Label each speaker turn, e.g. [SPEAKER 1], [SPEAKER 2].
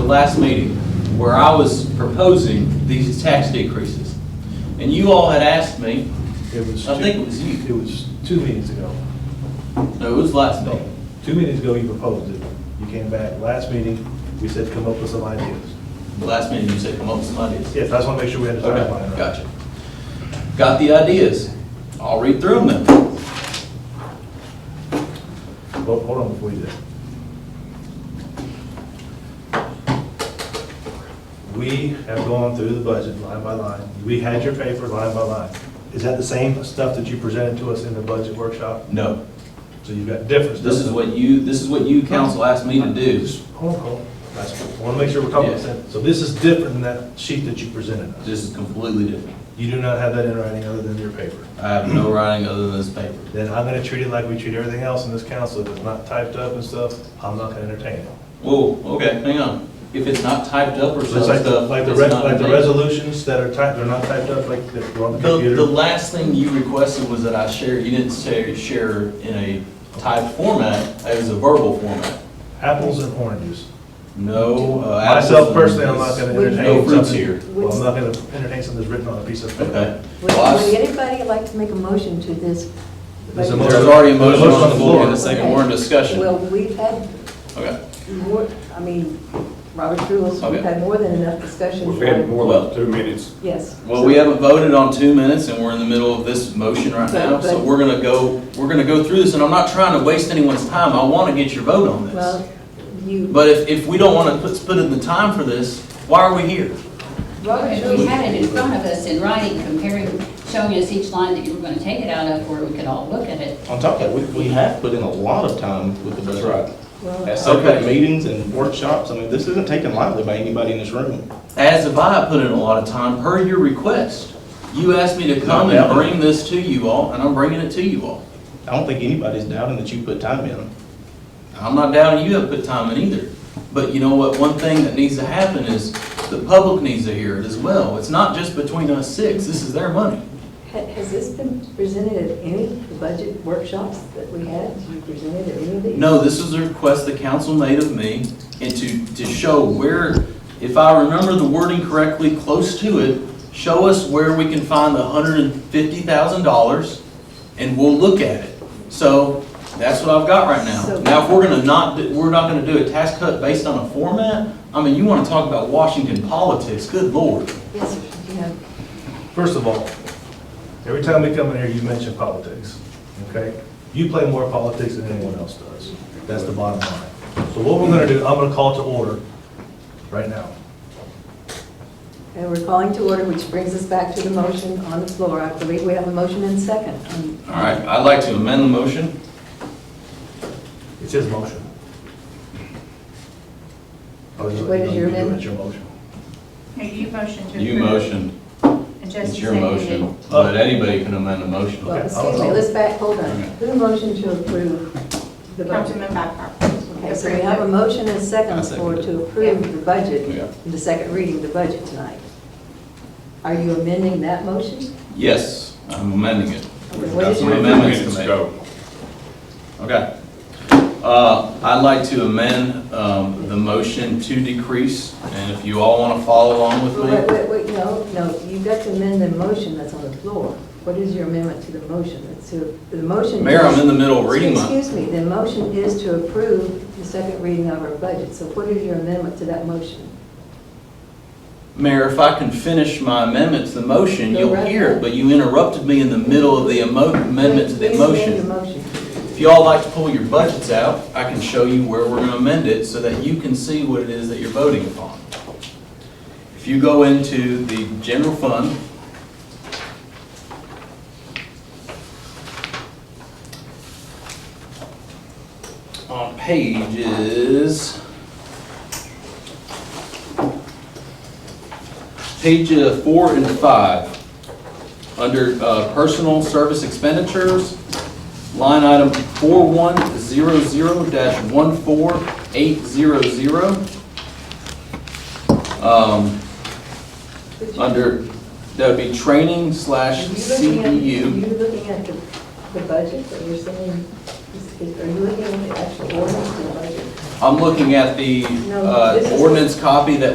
[SPEAKER 1] last meeting where I was proposing these tax decreases. And you all had asked me,
[SPEAKER 2] It was.
[SPEAKER 1] I
[SPEAKER 2] two-
[SPEAKER 1] think it was you.
[SPEAKER 2] It was two meetings ago.
[SPEAKER 1] no, it was last
[SPEAKER 2] No,
[SPEAKER 1] meeting.
[SPEAKER 2] two meetings ago you proposed it. You came back, last meeting, we said come up with some ideas.
[SPEAKER 1] The last meeting, you said, come up with some ideas.
[SPEAKER 2] Yes, I just want to make sure we had the
[SPEAKER 1] Okay,
[SPEAKER 2] timeline right.
[SPEAKER 1] gotcha. Got the ideas. I'll read through them then.
[SPEAKER 2] Well, Hold on before you do. We have gone through the budget line by line. We had your paper line by line. Is that the same stuff that you presented to us in the budget workshop?
[SPEAKER 1] No,
[SPEAKER 2] So you've got different stuff.
[SPEAKER 1] this is what you, this is what you council asked me to do.
[SPEAKER 2] Just Hold on, hold on. That's- I want to make sure we're talking about the same. So this is different than that sheet that you presented us.
[SPEAKER 1] This is completely different.
[SPEAKER 2] You do not have that in writing other than your paper.
[SPEAKER 1] I have no writing other than this paper.
[SPEAKER 2] Then I'm going to treat it like we treat everything else in this council. If it's not typed up and stuff, I'm not going to entertain it.
[SPEAKER 1] Whoa, okay, hang on. If it's not typed up or some
[SPEAKER 2] It's like, the-
[SPEAKER 1] stuff,
[SPEAKER 2] like the,
[SPEAKER 1] it's
[SPEAKER 2] res-
[SPEAKER 1] not
[SPEAKER 2] like the
[SPEAKER 1] made.
[SPEAKER 2] resolutions that are typed, they're not typed up, like, they're on the
[SPEAKER 1] The, the
[SPEAKER 2] computer.
[SPEAKER 1] last thing you requested was that I share, you didn't say share in a typed format, it was a verbal format.
[SPEAKER 2] Apples and oranges.
[SPEAKER 1] No. uh,
[SPEAKER 2] Myself
[SPEAKER 1] apples
[SPEAKER 2] personally, I'm
[SPEAKER 1] and
[SPEAKER 2] not gonna
[SPEAKER 1] oranges. No
[SPEAKER 2] entertain
[SPEAKER 1] fruits
[SPEAKER 2] something.
[SPEAKER 1] here.
[SPEAKER 2] Well, I'm not gonna entertain something that's written on a piece of paper.
[SPEAKER 1] Okay.
[SPEAKER 3] Would
[SPEAKER 1] Well, I
[SPEAKER 3] would
[SPEAKER 1] s-
[SPEAKER 3] anybody like to make a motion to this?
[SPEAKER 2] There's a
[SPEAKER 1] There's already a motion on the floor and a
[SPEAKER 2] There's a
[SPEAKER 1] second, we're in
[SPEAKER 3] Well,
[SPEAKER 1] discussion.
[SPEAKER 3] we've had
[SPEAKER 1] Okay.
[SPEAKER 3] more, I mean, Robert rules, we've
[SPEAKER 1] Okay.
[SPEAKER 3] had more than enough discussion.
[SPEAKER 4] We've had more than two minutes.
[SPEAKER 3] Yes.
[SPEAKER 1] Well, we haven't voted on two minutes and we're in the middle of this motion right now,
[SPEAKER 3] But-
[SPEAKER 1] so
[SPEAKER 3] but-
[SPEAKER 1] we're gonna go, we're gonna go through this and I'm not trying to waste anyone's time. I wanna get your vote on this.
[SPEAKER 3] Well, you,
[SPEAKER 1] But if, if we don't wanna put, put in the time for this, why are we here?
[SPEAKER 3] Robert
[SPEAKER 5] Well, If we
[SPEAKER 3] rules,
[SPEAKER 5] had it in front of us in writing, comparing, showing us each line that you were going to take it out of, where we could all look at it.
[SPEAKER 6] On top of that, we, we have put in a lot of time with the budget. At
[SPEAKER 3] well,
[SPEAKER 6] separate
[SPEAKER 1] Okay.
[SPEAKER 6] meetings and workshops, I mean, this isn't taken lightly by anybody in this room.
[SPEAKER 1] As if I put in a lot of time per your request. You asked me to come
[SPEAKER 6] No
[SPEAKER 1] and
[SPEAKER 6] doubt.
[SPEAKER 1] bring this to you all, and I'm bringing it to you all.
[SPEAKER 6] I don't think anybody's doubting that you put time in.
[SPEAKER 1] I'm not doubting you have put time in either. But you know what, one thing that needs to happen is the public needs to hear it as well. It's not just between us six, this is their money.
[SPEAKER 3] ha- has this been presented at any of the budget workshops that we had? Have you presented at any of these?
[SPEAKER 1] No, this was a request the council made of me, and to, to show where, if I remember the wording correctly, close to it, show us where we can find the hundred and fifty thousand dollars, and we'll look at it. So, that's what I've got right now.
[SPEAKER 3] So-
[SPEAKER 1] Now, if we're gonna not, do- we're not gonna do a tax cut based on a format, I mean, you wanna talk about Washington politics, good lord.
[SPEAKER 3] Yes, you have.
[SPEAKER 2] First of all, every time we come in here, you mention politics, okay? You play more politics than anyone else does. That's the bottom line. So what we're gonna do, I'm gonna call to order right now.
[SPEAKER 3] And we're calling to order, which brings us back to the motion on the floor. I believe we have a motion and second. Um,
[SPEAKER 1] All right, I'd like to amend the motion.
[SPEAKER 2] It's his motion. Oh, you-
[SPEAKER 3] What is your
[SPEAKER 2] you do it,
[SPEAKER 3] amendment?
[SPEAKER 2] It's your motion.
[SPEAKER 7] No, you motioned to approve.
[SPEAKER 1] You motioned,
[SPEAKER 7] And Justin
[SPEAKER 1] it's your
[SPEAKER 7] seconded.
[SPEAKER 1] motion, but anybody can amend a motion.
[SPEAKER 3] Well,
[SPEAKER 2] Okay,
[SPEAKER 3] excuse me,
[SPEAKER 2] I'll-
[SPEAKER 3] let's back, hold on.
[SPEAKER 1] Okay.
[SPEAKER 3] Who motioned to approve the budget?
[SPEAKER 7] Councilman Babcock.
[SPEAKER 3] Okay, so we have a motion and a second
[SPEAKER 6] I second
[SPEAKER 3] for
[SPEAKER 6] it.
[SPEAKER 3] to approve the
[SPEAKER 1] Yeah.
[SPEAKER 3] budget, the second reading of the budget tonight. Are you amending that motion?
[SPEAKER 1] Yes, I'm amending it.
[SPEAKER 3] What is
[SPEAKER 4] Two
[SPEAKER 3] your
[SPEAKER 1] That's my amendment.
[SPEAKER 3] amendment?
[SPEAKER 4] minutes ago.
[SPEAKER 1] Okay. Uh, I'd like to amend um, the motion to decrease, and if you all want to follow along with
[SPEAKER 3] Wait,
[SPEAKER 1] me.
[SPEAKER 3] wait, wait, no, no, you've got to amend the motion that's on the floor. What is your amendment to the motion? It's to, the motion.
[SPEAKER 1] Mayor, I'm
[SPEAKER 3] is-
[SPEAKER 1] in the middle of reading my,
[SPEAKER 3] Excuse me, the motion is to approve the second reading of our budget. So what is your amendment to that motion?
[SPEAKER 1] Mayor, if I can finish my amendment to the motion,
[SPEAKER 3] Go
[SPEAKER 1] you'll
[SPEAKER 3] right
[SPEAKER 1] hear it,
[SPEAKER 3] ahead.
[SPEAKER 1] but you interrupted me in the middle of the emo- amendment to the
[SPEAKER 3] Please amend
[SPEAKER 1] motion.
[SPEAKER 3] the motion.
[SPEAKER 1] If you all like to pull your budgets out, I can show you where we're going to amend it so that you can see what it is that you're voting upon. If you go into the general fund, on pages, page uh, four and five, under uh, personal service expenditures, line item 4100-14800. Um, Under, that would be training slash
[SPEAKER 3] Are you looking at-
[SPEAKER 1] CPU.
[SPEAKER 3] Are you looking at the, the budget that you're saying, is- is- are you looking at the actual ordinance to the budget?
[SPEAKER 1] I'm looking at the
[SPEAKER 3] No,
[SPEAKER 1] uh,
[SPEAKER 3] this is-
[SPEAKER 1] ordinance copy that